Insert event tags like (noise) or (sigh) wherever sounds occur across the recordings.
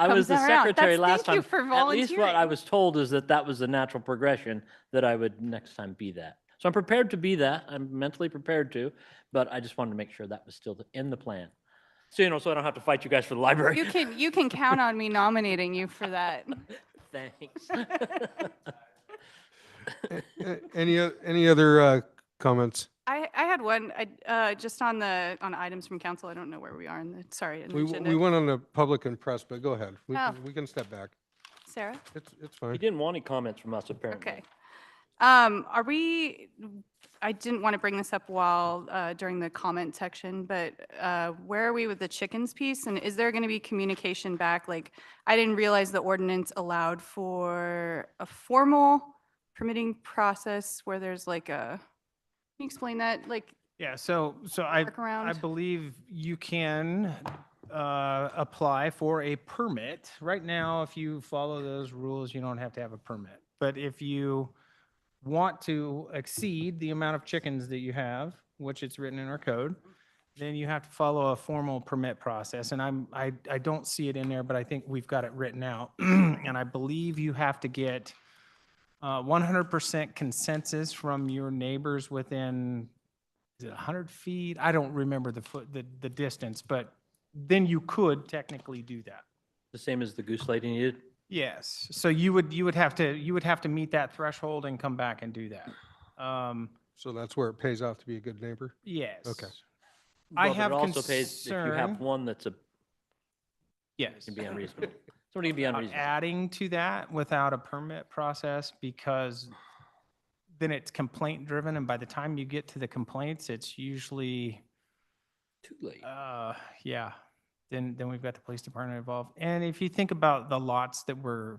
I was comes the around. secretary That's- last thank you time. for At least what I volunteering. was told is that that was the natural progression, that I would next time be that. So I'm prepared to be that. I'm mentally prepared to, but I just wanted to make sure that was still the- in the plan. So, you know, so I don't have to fight you guys for the (laughs) You library. can, you can count on me nominating you for that. Thanks. (laughs) A- Any, o- any other uh, comments? I, I had one, I, uh, just on the, on items from council. I don't know where we are in the, sorry, in the We, w- we agenda. went on the public and press, but go ahead. We Oh. can, we can step back. Sarah? It's, it's You fine. didn't want any comments from us, apparently. Okay. Um, are we, I didn't want to bring this up while, uh, during the comment section, but, uh, where are we with the chickens piece? And is there going to be communication back? Like, I didn't realize the ordinance allowed for a formal permitting process where there's like a, can you explain that? Like, Yeah, so, so I, I workaround? believe you can uh, apply for a permit. Right now, if you follow those rules, you don't have to have a permit. But if you want to exceed the amount of chickens that you have, which it's written in our code, then you have to follow a formal permit process. And I'm, I, I don't see it in there, but I think we've got it written out. (clears throat) And I believe you have to get uh, 100% consensus from your neighbors within is it 100 feet? I don't remember the foot, the, the distance, but then you could technically do that. The same as the goose lady needed. Yes, so you would, you would have to, you would have to meet that threshold and come back and do that. Um, So that's where it pays off to be a good neighbor. yes. I Well, but have it also pays If you have concern- one that's a, Yes. can be unreasonable. Somebody can be about unreasonable. Adding to that without a permit process because then it's complaint driven and by the time you get to the complaints, it's usually, Too late. Uh, yeah, then, then we've got the police department involved. And if you think about the lots that we're,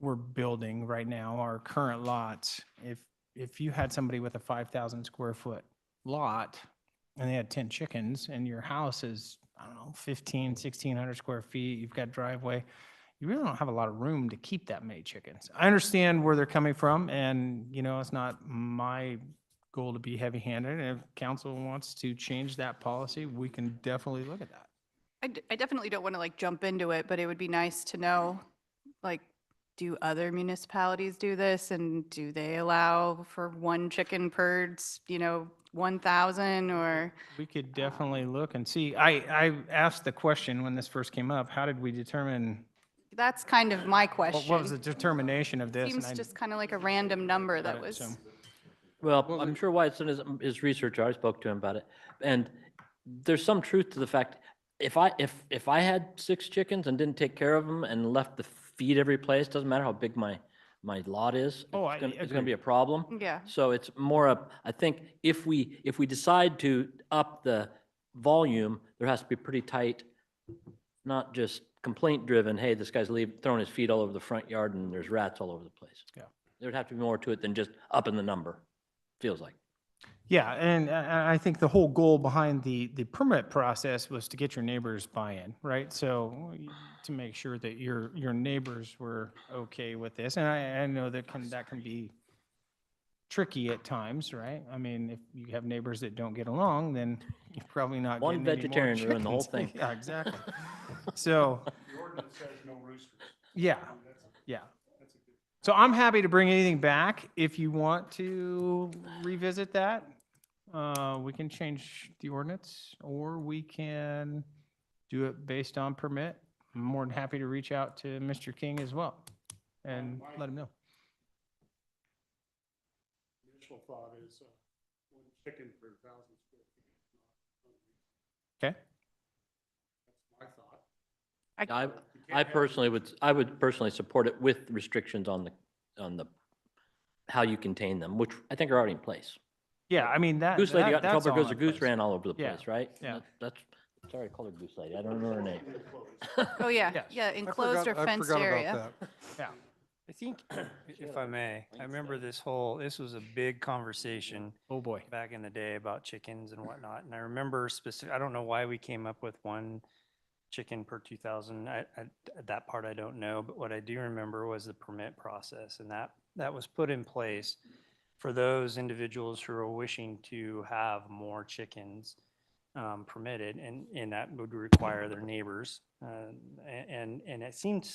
we're building right now, our current lots, if, if you had somebody with a five thousand square foot lot and they had ten chickens and your house is, I don't know, fifteen, sixteen hundred square feet, you've got driveway, you really don't have a lot of room to keep that many chickens. I understand where they're coming from and, you know, it's not my goal to be heavy-handed, and if council wants to change that policy, we can definitely look at that. I, d- I definitely don't want to like jump into it, but it would be nice to know, like, do other municipalities do this and do they allow for one chicken per, s- you know, 1,000 or? We could definitely look and see. I, I asked the question when this first came up, how did we determine, That's kind of my what question. what was the determination of this? And Seems I just kind of like a random number that got it, was, so- Well, I'm sure Watson is, is researcher. I spoke to him about it. And there's some truth to the fact, if I, if, if I had six chickens and didn't take care of them and left the feed every place, doesn't matter how big my, my lot is. Oh, it's I gonna- It's agree. gonna be a problem. yeah. So it's more of, I think if we, if we decide to up the volume, there has to be pretty tight, not just complaint driven, hey, this guy's leaving, throwing his feet all over the front yard and there's rats all over the place. Yeah. There'd have to be more to it than just upping the number, feels (laughs) like. Yeah, and uh, I, I think the whole goal behind the, the permit process was to get your neighbors buy-in, right? So to make sure that your, your neighbors were okay with this, and I, I know that can, that can be tricky at times, right? I mean, if you have neighbors that don't get along, then you're probably not One getting any more vegetarian ruined the whole chickens. thing. (laughs) Yeah, exactly. So, yeah, yeah. So I'm happy to bring anything back if you want to revisit that. Uh, we can change the ordinance or we can do it based on permit. I'm more than happy to reach out to Mr. King as well and let him know. initial thought is uh, one chicken per thousand square feet. is not Okay? unreasonable. That's my thought. I, You can't I have- personally would, I would personally support it with restrictions on the, on the, how you contain them, which I think are already in place. Yeah, I mean, that. Goose lady that- got in that's trouble all because her in goose place. ran all over the Yeah, place, right? yeah. That- That's, sorry, I called her goose lady. I don't know her name. Oh, yeah, Yes. yeah, I enclosed or forgot- I fenced forgot about area. that. I Assim think, if I may, I remember this whole, this was a big conversation Oh, boy. back in the day about chickens and whatnot. And I remember specific, I don't know why we came up with one chicken per 2,000. I, I, that part I don't know, but what I do remember was the permit process. And that, that was put in place for those individuals who are wishing to have more chickens um, permitted, and, and that would require their neighbors. uh, um, a- And, and it seems